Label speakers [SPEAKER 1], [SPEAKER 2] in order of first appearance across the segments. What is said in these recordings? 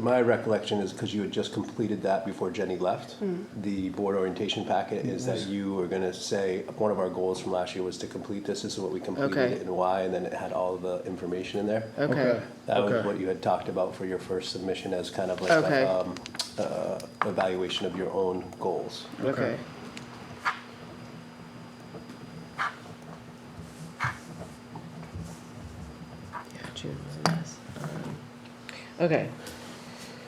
[SPEAKER 1] My recollection is because you had just completed that before Jenny left,
[SPEAKER 2] Hmm.
[SPEAKER 1] the board orientation packet is that you were going to say, one of our goals from last year was to complete this, this is what we completed
[SPEAKER 2] Okay.
[SPEAKER 1] it and why, and then it had all the information in there.
[SPEAKER 2] Okay,
[SPEAKER 1] That was
[SPEAKER 3] Okay.
[SPEAKER 1] what you had talked about for your first submission as kind of like
[SPEAKER 2] Okay.
[SPEAKER 1] a, um, uh, evaluation of your own goals.
[SPEAKER 2] okay. Yeah, June was a mess. Um, Okay,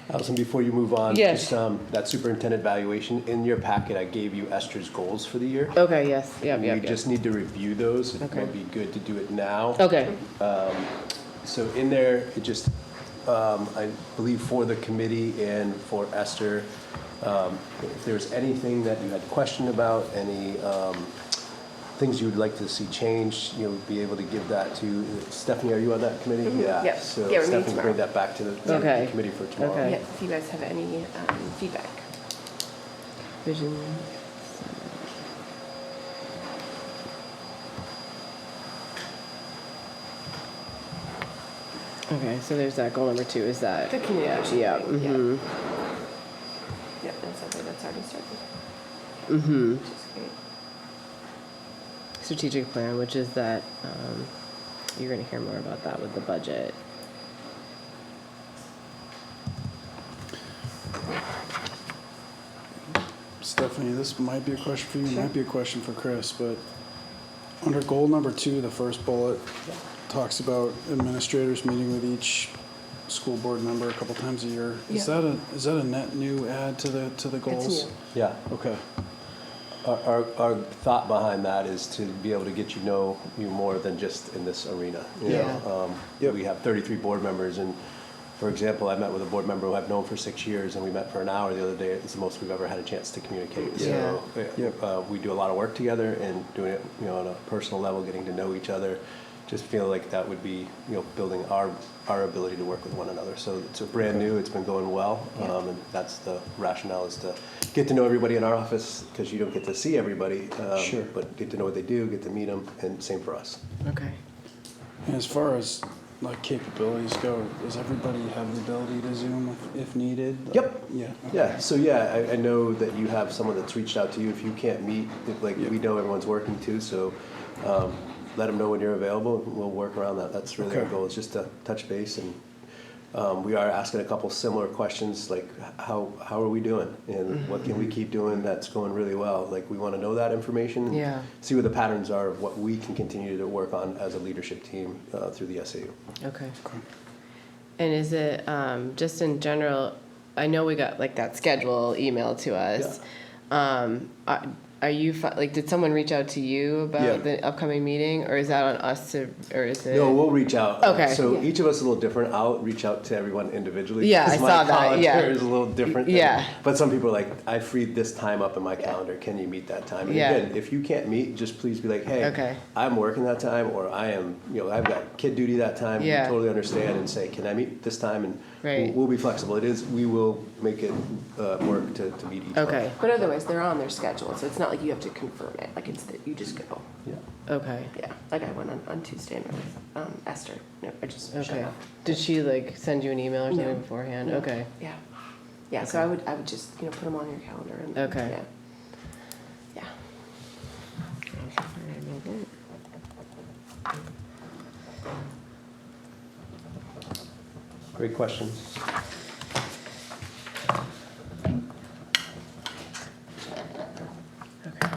[SPEAKER 1] Allison, before you move on,
[SPEAKER 2] Yes.
[SPEAKER 1] just um, that superintendent evaluation, in your packet, I gave you Esther's goals for the year.
[SPEAKER 2] okay, yes, yep,
[SPEAKER 1] You
[SPEAKER 2] yep, yep.
[SPEAKER 1] just need to review those. It
[SPEAKER 2] Okay.
[SPEAKER 1] might be good to do it now.
[SPEAKER 2] Okay,
[SPEAKER 1] So in there, it just, um, I believe for the committee and for Esther, um, if there's anything that you had question about, any, um, things you would like to see changed, you know, be able to give that to, Stephanie, are you on that committee? Yeah.
[SPEAKER 4] Mm-hmm. Yep.
[SPEAKER 1] So
[SPEAKER 4] Yeah, we're meeting
[SPEAKER 1] Stephanie,
[SPEAKER 4] tomorrow.
[SPEAKER 1] bring that back to the- to the
[SPEAKER 2] Okay.
[SPEAKER 1] committee for tomorrow.
[SPEAKER 2] Okay.
[SPEAKER 4] Yeah, if you guys have any um, feedback.
[SPEAKER 2] vision, okay, so there's that goal number two, is that?
[SPEAKER 4] The communication
[SPEAKER 2] Yeah,
[SPEAKER 4] thing, yeah.
[SPEAKER 2] mhm,
[SPEAKER 4] Yep, that's something that's already started,
[SPEAKER 2] mhm.
[SPEAKER 4] which is great.
[SPEAKER 2] strategic plan, which is that um, you're going to hear more about that with the budget.
[SPEAKER 3] Stephanie, this might be a question for you, might be a question for Chris, but under goal number two, the first bullet talks about administrators meeting with each school board member a couple times a year. Is
[SPEAKER 4] Yeah.
[SPEAKER 3] that a, is that a net new add to the, to the goals?
[SPEAKER 4] new.
[SPEAKER 1] Yeah.
[SPEAKER 3] Okay,
[SPEAKER 1] Our, our, our thought behind that is to be able to get you know you more than just in this arena. you know?
[SPEAKER 2] Yeah.
[SPEAKER 1] Um,
[SPEAKER 3] Yep.
[SPEAKER 1] We have thirty-three board members and, for example, I met with a board member who I've known for six years and we met for an hour the other day. It's the most we've ever had a chance to communicate. So,
[SPEAKER 3] Yep.
[SPEAKER 1] uh, we do a lot of work together and doing it, you know, on a personal level, getting to know each other. Just feel like that would be, you know, building our, our ability to work with one another. So it's a brand new, it's been going well. Um, and that's the rationale is to get to know everybody in our office because you don't get to see everybody. um,
[SPEAKER 3] Sure.
[SPEAKER 1] But get to know what they do, get to meet them and same for us.
[SPEAKER 2] Okay.
[SPEAKER 3] and as far as like capabilities go, does everybody have the ability to Zoom if- if needed?
[SPEAKER 1] Yep.
[SPEAKER 3] Yeah. okay.
[SPEAKER 1] Yeah, so yeah, I, I know that you have someone that's reached out to you if you can't meet, if, like, we know everyone's working too, so, um, let them know when you're available, and we'll work around that, that's really our
[SPEAKER 3] Okay.
[SPEAKER 1] goal, is just to touch base and, um, we are asking a couple similar questions, like, h- how, how are we doing?
[SPEAKER 3] Mm-hmm.
[SPEAKER 1] And what can we keep doing that's going really well, like, we wanna know that information. and
[SPEAKER 2] Yeah.
[SPEAKER 1] See what the patterns are of what we can continue to work on as a leadership team, uh, through the SAU.
[SPEAKER 2] Okay.
[SPEAKER 3] Okay.
[SPEAKER 2] And is it um, just in general? I know we got like that schedule email to us. Um, are, are you fi- like? Did someone reach out to you about
[SPEAKER 3] Yeah.
[SPEAKER 2] the upcoming meeting, or is that on us to, or is it?
[SPEAKER 1] No, we'll reach out.
[SPEAKER 2] Okay.
[SPEAKER 1] So
[SPEAKER 4] Yeah.
[SPEAKER 1] each of us is a little different. I'll reach out to everyone individually.
[SPEAKER 2] Yeah,
[SPEAKER 1] 'cause
[SPEAKER 2] I
[SPEAKER 1] my
[SPEAKER 2] saw that,
[SPEAKER 1] calendar
[SPEAKER 2] yeah.
[SPEAKER 1] is a little different. than-
[SPEAKER 2] Yeah.
[SPEAKER 1] But some people are like, I freed this time up in my calendar. Can you meet that time? And
[SPEAKER 2] Yeah.
[SPEAKER 1] again, if you can't meet, just please be like, hey,
[SPEAKER 2] Okay.
[SPEAKER 1] I'm working that time, or I am, you know, I've got kid duty that time. We
[SPEAKER 2] Yeah.
[SPEAKER 1] Totally understand and say, can I meet this time? And we'll-
[SPEAKER 2] Right.
[SPEAKER 1] we'll be flexible. It is, we will make it uh, work to, to meet each one.
[SPEAKER 2] okay.
[SPEAKER 4] But otherwise, they're on their schedule, so it's not like you have to confirm it, like it's that you just go.
[SPEAKER 1] Yeah.
[SPEAKER 2] Okay.
[SPEAKER 4] Yeah, like I went on, on Tuesday and with um, Esther, no, I just showed
[SPEAKER 2] Okay.
[SPEAKER 4] up.
[SPEAKER 2] Did she like send you an email or something
[SPEAKER 4] No.
[SPEAKER 2] beforehand?
[SPEAKER 4] No.
[SPEAKER 2] Okay.
[SPEAKER 4] Yeah, yeah, so I would, I would just, you know, put them on your calendar and.
[SPEAKER 2] Okay.
[SPEAKER 4] yeah. Yeah,
[SPEAKER 1] Great questions.
[SPEAKER 2] Okay.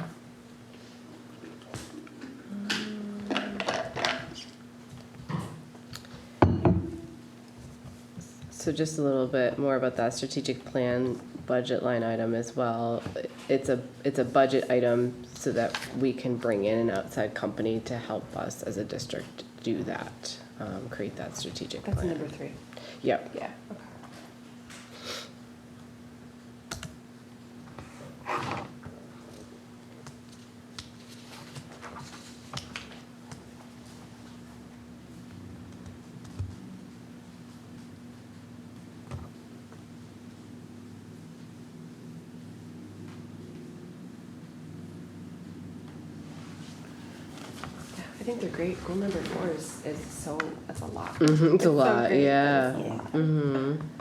[SPEAKER 2] So just a little bit more about that strategic plan budget line item as well. It's a, it's a budget item so that we can bring in an outside company to help us as a district do that, um, create that strategic
[SPEAKER 4] that's
[SPEAKER 2] plan.
[SPEAKER 4] number three,
[SPEAKER 2] Yep.
[SPEAKER 4] yeah, okay. Yeah, I think they're great, goal number four is, is so, that's a lot.
[SPEAKER 2] Mhm, it's a
[SPEAKER 4] so
[SPEAKER 2] lot,
[SPEAKER 4] great.
[SPEAKER 2] yeah.
[SPEAKER 3] Yeah.
[SPEAKER 2] Mm-hmm.